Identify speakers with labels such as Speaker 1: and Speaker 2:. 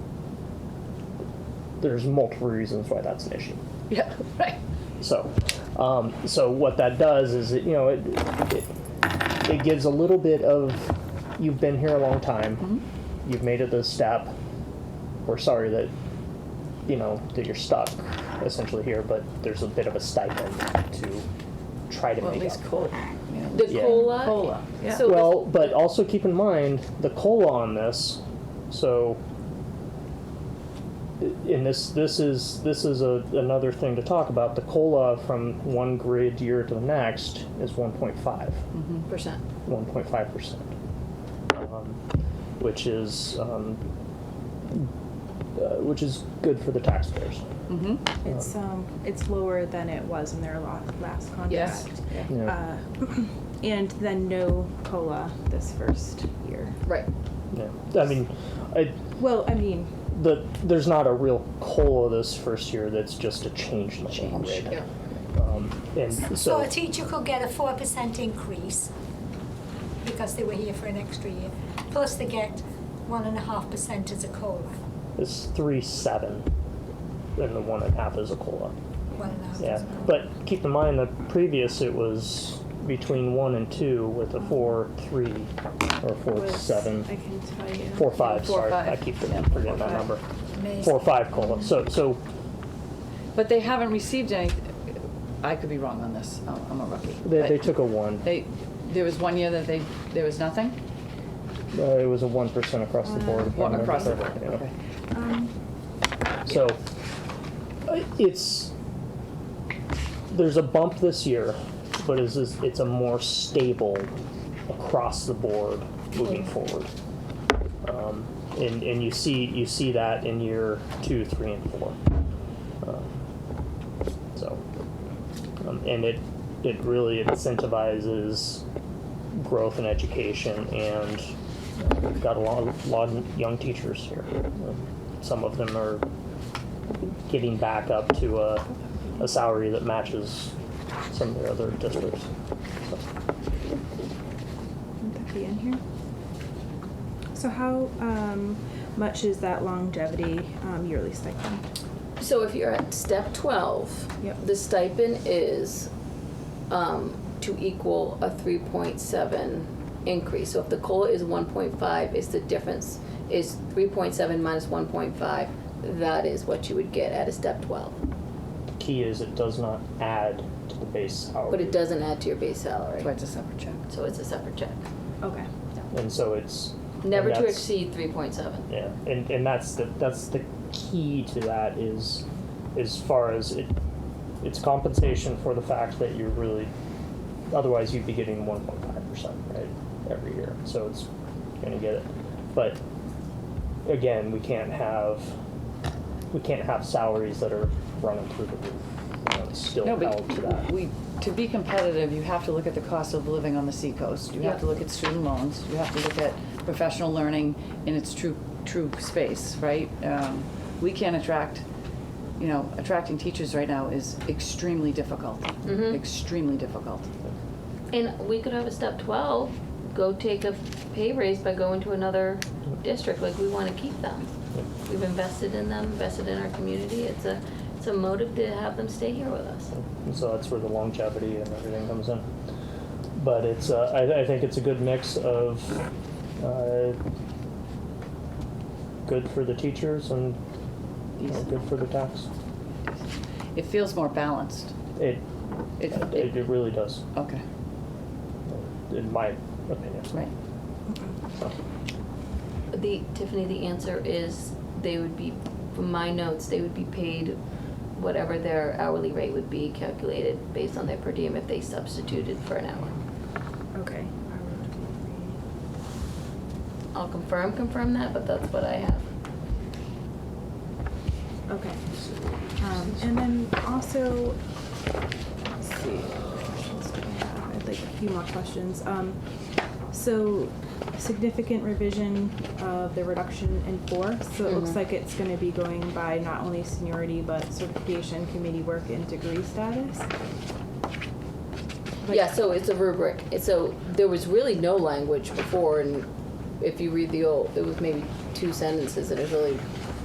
Speaker 1: there's multiple reasons why that's an issue.
Speaker 2: Yeah, right.
Speaker 1: So, um, so what that does is it, you know it, it it gives a little bit of you've been here a long time,
Speaker 2: Mm-hmm.
Speaker 1: you've made it this step. We're sorry that you know that you're stuck essentially here, but there's a bit of a stipend to try to
Speaker 2: Well, at
Speaker 1: make
Speaker 2: least
Speaker 1: up.
Speaker 2: cola.
Speaker 3: The
Speaker 1: Yeah.
Speaker 3: cola.
Speaker 2: Cola, yeah.
Speaker 3: So
Speaker 1: Well, but also keep in mind the cola on this. So, and this this is this is a, another thing to talk about. The cola from one grid year to the next is 1.5,
Speaker 3: percent.
Speaker 1: 1.5 percent, um, which is um, uh, which is good for the taxpayers.
Speaker 4: It's, um, it's lower than it was in their la- last
Speaker 2: Yes.
Speaker 4: contract.
Speaker 1: Yeah.
Speaker 4: Uh, And then no COLA this first year.
Speaker 2: Right.
Speaker 1: yeah. I mean, I,
Speaker 4: Well, I mean,
Speaker 1: the there's not a real cola this first year. That's just a change in the change. grid.
Speaker 2: Yeah.
Speaker 1: Um, and so,
Speaker 5: So a teacher could get a four percent increase because they were here for an extra year, plus they get one and a half percent as a COLA,
Speaker 1: It's three seven, and the one and a half is a cola.
Speaker 5: one and a half.
Speaker 1: Yeah,
Speaker 5: percent.
Speaker 1: but keep in mind the previous it was between one and two with a four three or four
Speaker 4: was,
Speaker 1: seven,
Speaker 4: I can tell you.
Speaker 1: four five.
Speaker 2: Four,
Speaker 1: sorry,
Speaker 2: five.
Speaker 1: I keep
Speaker 2: Yeah,
Speaker 1: forgetting
Speaker 4: four,
Speaker 1: that
Speaker 4: five.
Speaker 1: number.
Speaker 5: Amazing.
Speaker 1: Four five cola. So so
Speaker 2: But they haven't received any, I could be wrong on this, I'm I'm a rookie.
Speaker 1: they,
Speaker 2: but
Speaker 1: they took a one.
Speaker 2: They, there was one year that they, there was nothing?
Speaker 1: Uh, it was a one percent across the board. if I
Speaker 2: Well,
Speaker 1: remember
Speaker 2: across the board,
Speaker 1: correctly, yeah.
Speaker 2: okay.
Speaker 4: Um,
Speaker 1: So uh, it's there's a bump this year, but it's it's a more stable across the board moving forward. Um, and and you see you see that in year two, three, and four. Um, so um, and it it really incentivizes growth in education and uh, we've got a lot, lot of young teachers here. Um, Some of them are getting back up to a, a salary that matches some of the other districts. So,
Speaker 4: Wouldn't that be in here? So how, um, much is that longevity, um, yearly stipend?
Speaker 3: So if you're at step twelve,
Speaker 4: Yep.
Speaker 3: the stipend is um, to equal a three point seven increase. So if the cola is one point five, it's the difference is three point seven minus one point five. That is what you would get at a step twelve,
Speaker 1: the key is it does not add to the base salary.
Speaker 3: but it doesn't add to your base salary.
Speaker 2: So I just have to check.
Speaker 3: So it's a separate check.
Speaker 4: Okay.
Speaker 1: And so it's
Speaker 3: Never
Speaker 1: and
Speaker 3: to
Speaker 1: that's-
Speaker 3: exceed three point seven.
Speaker 1: Yeah, and, and that's the that's the key to that is as far as it it's compensation for the fact that you're really otherwise you'd be getting one point five percent right every year. So it's gonna get it. But again, we can't have we can't have salaries that are running through the roof. You know, it's still
Speaker 2: No,
Speaker 1: held to that.
Speaker 2: but we, to be competitive, you have to look at the cost of living on the seacoast. You have to
Speaker 3: Yeah.
Speaker 2: look at student loans. You have to look at professional learning in its true, true space, right? Um, We can't attract, you know, attracting teachers right now is extremely difficult.
Speaker 1: Mm-hmm.
Speaker 2: Extremely difficult.
Speaker 3: And we could have a step twelve, go take a pay raise by going to another district, like we wanna keep them. We've invested in them, invested in our community, it's a, it's a motive to have them stay here with us.
Speaker 1: And so that's where the longevity and everything comes in. But it's, uh, I, I think it's a good mix of uh, good for the teachers and you know, good for the tax.
Speaker 2: It feels more balanced.
Speaker 1: It,
Speaker 2: It,
Speaker 1: it,
Speaker 2: it,
Speaker 1: it really does,
Speaker 2: okay,
Speaker 1: in my opinion.
Speaker 2: right.
Speaker 1: So,
Speaker 3: The, Tiffany, the answer is they would be, from my notes, they would be paid whatever their hourly rate would be calculated based on their per diem if they substituted for an hour.
Speaker 4: Okay. Um,
Speaker 3: I'll confirm, confirm that, but that's what I have.
Speaker 4: Okay. Um, and then also, let's see, what questions do I have? I'd like a few more questions. Um, so significant revision of the reduction in force. So it looks
Speaker 3: Mhm.
Speaker 4: like it's gonna be going by not only seniority, but certification, committee work, and degree status. Like-
Speaker 3: Yeah, so it's a rubric. It's So there was really no language before, and if you read the old, it was maybe two sentences, and it was really